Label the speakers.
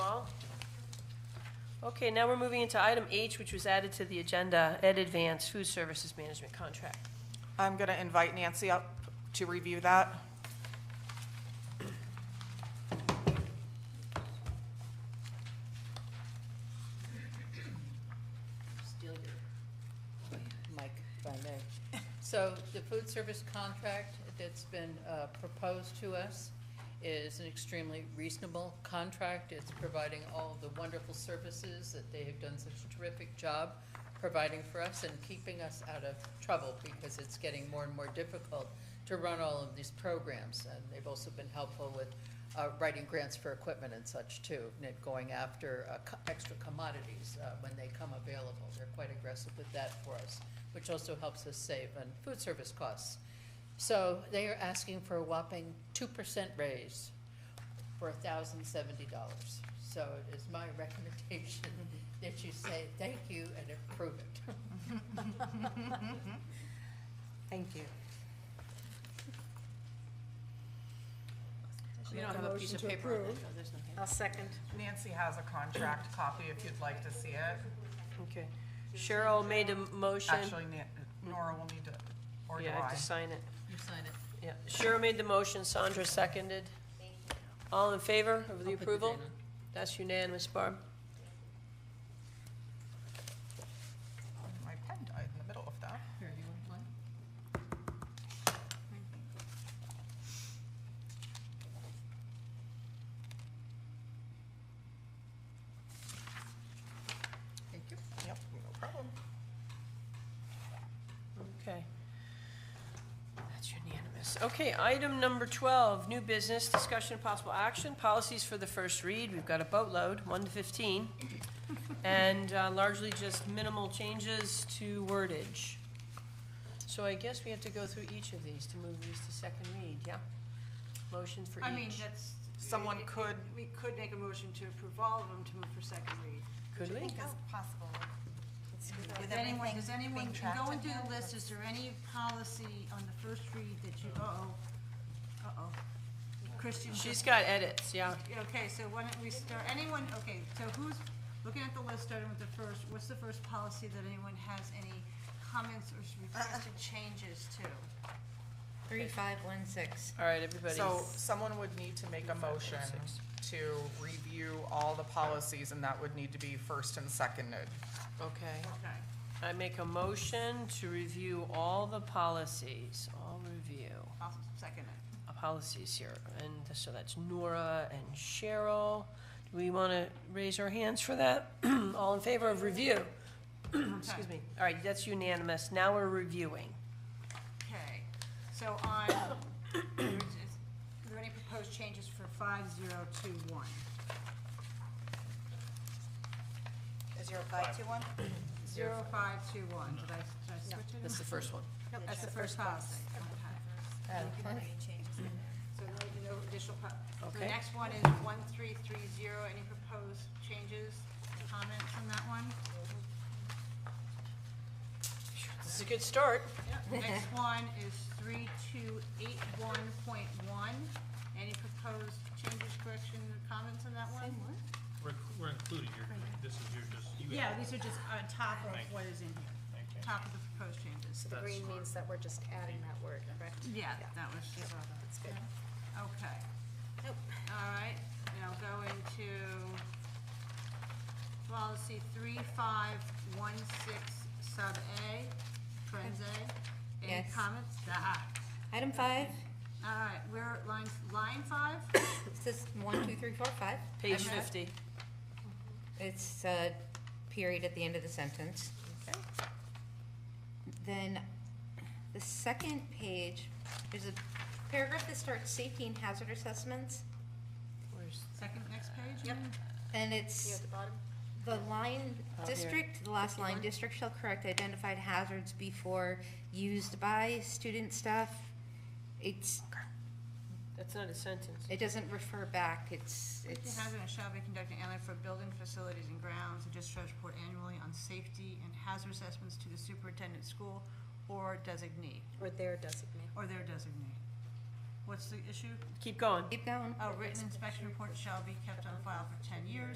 Speaker 1: Okay, now we're moving into item H, which was added to the agenda, Ed Advance Food Services Management Contract.
Speaker 2: I'm going to invite Nancy up to review that.
Speaker 3: steal your mic if I may. So the food service contract that's been uh, proposed to us is an extremely reasonable contract. It's providing all the wonderful services that they have done such a terrific job providing for us and keeping us out of trouble because it's getting more and more difficult to run all of these programs. And they've also been helpful with uh, writing grants for equipment and such too, and going after uh, co- extra commodities uh, when they come available. They're quite aggressive with that for us, which also helps us save on food service costs. So they are asking for a whopping two percent raise for thousand seventy dollars. So it is my recommendation that you say thank you and approve it.
Speaker 4: Thank you.
Speaker 1: We don't have a piece of paper on that. No, there's no paper.
Speaker 4: I'll second.
Speaker 2: Nancy has a contract copy if you'd like to see it.
Speaker 1: Okay. Cheryl made a motion.
Speaker 2: Actually, Nan- Nora will need to, or do
Speaker 1: Yeah, I
Speaker 2: I?
Speaker 1: have to sign it.
Speaker 3: You sign it.
Speaker 1: Yeah, Cheryl made the motion, Sandra seconded. All in favor of the
Speaker 3: I'll put the
Speaker 1: approval?
Speaker 3: date on.
Speaker 1: That's unanimous, Barb.
Speaker 2: My pen died in the middle of that.
Speaker 3: Here, you want one? Thank you.
Speaker 2: Yep, no problem.
Speaker 1: Okay. That's unanimous. Okay, item number 12, new business, discussion and possible action, policies for the first read. We've got a boatload, 1 to 15, and uh, largely just minimal changes to wordage. So I guess we have to go through each of these to move these to second read, yeah? Motion for each.
Speaker 5: I mean, that's.
Speaker 2: Someone
Speaker 5: it- it-
Speaker 2: could-
Speaker 5: We could make a motion to approve all of them to move for second read.
Speaker 1: Could we?
Speaker 6: That's possible.
Speaker 5: Does anyone, does anyone,
Speaker 6: being tracked
Speaker 5: going through
Speaker 6: in
Speaker 5: the
Speaker 6: that?
Speaker 5: list, is there any policy on the first read that you, uh-oh, uh-oh. Christian just-
Speaker 1: She's got edits, yeah.
Speaker 5: Okay, so why don't we start, anyone, okay, so who's, looking at the list, starting with the first, what's the first policy that anyone has any comments or requested changes to?
Speaker 6: 3516.
Speaker 1: All right, everybody's.
Speaker 2: So someone would need to make a motion to review all the policies, and that would need to be first and seconded.
Speaker 1: Okay.
Speaker 5: Okay.
Speaker 1: I make a motion to review all the policies, all review,
Speaker 5: I'll second it.
Speaker 1: uh, policies here. And so that's Nora and Cheryl. Do we want to raise our hands for that? All in favor of review? Excuse me. All right, that's unanimous. Now we're reviewing.
Speaker 5: Okay, so on, is is there any proposed changes for five zero two one?
Speaker 6: 0521?
Speaker 5: Zero five two one, did I, did I switch it?
Speaker 1: That's the first one.
Speaker 5: Nope, That's the first policy. Okay. So no, no additional, po- so the
Speaker 1: Okay.
Speaker 5: next one is one three three zero, any proposed changes, comments on that one?
Speaker 1: This is a good start.
Speaker 5: Next one is three two eight one point one, any proposed changes, corrections, or comments on that one?
Speaker 7: We're, we're including your, this is your, just, you
Speaker 5: Yeah,
Speaker 7: have.
Speaker 5: these are just on top of what is in here,
Speaker 7: Okay.
Speaker 5: top of the proposed changes.
Speaker 7: That's
Speaker 8: Green
Speaker 7: smart.
Speaker 8: means that we're just adding that word, correct?
Speaker 5: Yeah, that was,
Speaker 8: That's good.
Speaker 5: okay. All right, now go into policy three five one six sub A, trans A. Any
Speaker 6: Yes.
Speaker 5: comments? Ah,
Speaker 6: Item five,
Speaker 5: All right, we're at line, line five?
Speaker 6: it says one, two, three, four, five.
Speaker 1: Page
Speaker 6: I'm not-
Speaker 1: 50.
Speaker 6: It's a period at the end of the sentence.
Speaker 1: Okay.
Speaker 6: Then the second page, there's a paragraph that starts safety and hazard assessments.
Speaker 1: Where's-
Speaker 5: Second, next page?
Speaker 6: Yep. And it's
Speaker 8: bottom?
Speaker 6: the line
Speaker 1: Oh, here.
Speaker 6: district, the last line, district shall correct identified hazards before used by student staff. It's,
Speaker 1: That's not a sentence.
Speaker 6: it doesn't refer back, it's,
Speaker 5: Safety
Speaker 6: it's.
Speaker 5: hazard and shall be conducted annually for building facilities and grounds, and just shall report annually on safety and hazard assessments to the superintendent school or designee,
Speaker 8: Or their designate.
Speaker 5: or their designee. What's the issue?
Speaker 1: Keep going.
Speaker 6: Keep going.
Speaker 5: Oh, A written inspection report shall be kept on file for ten years.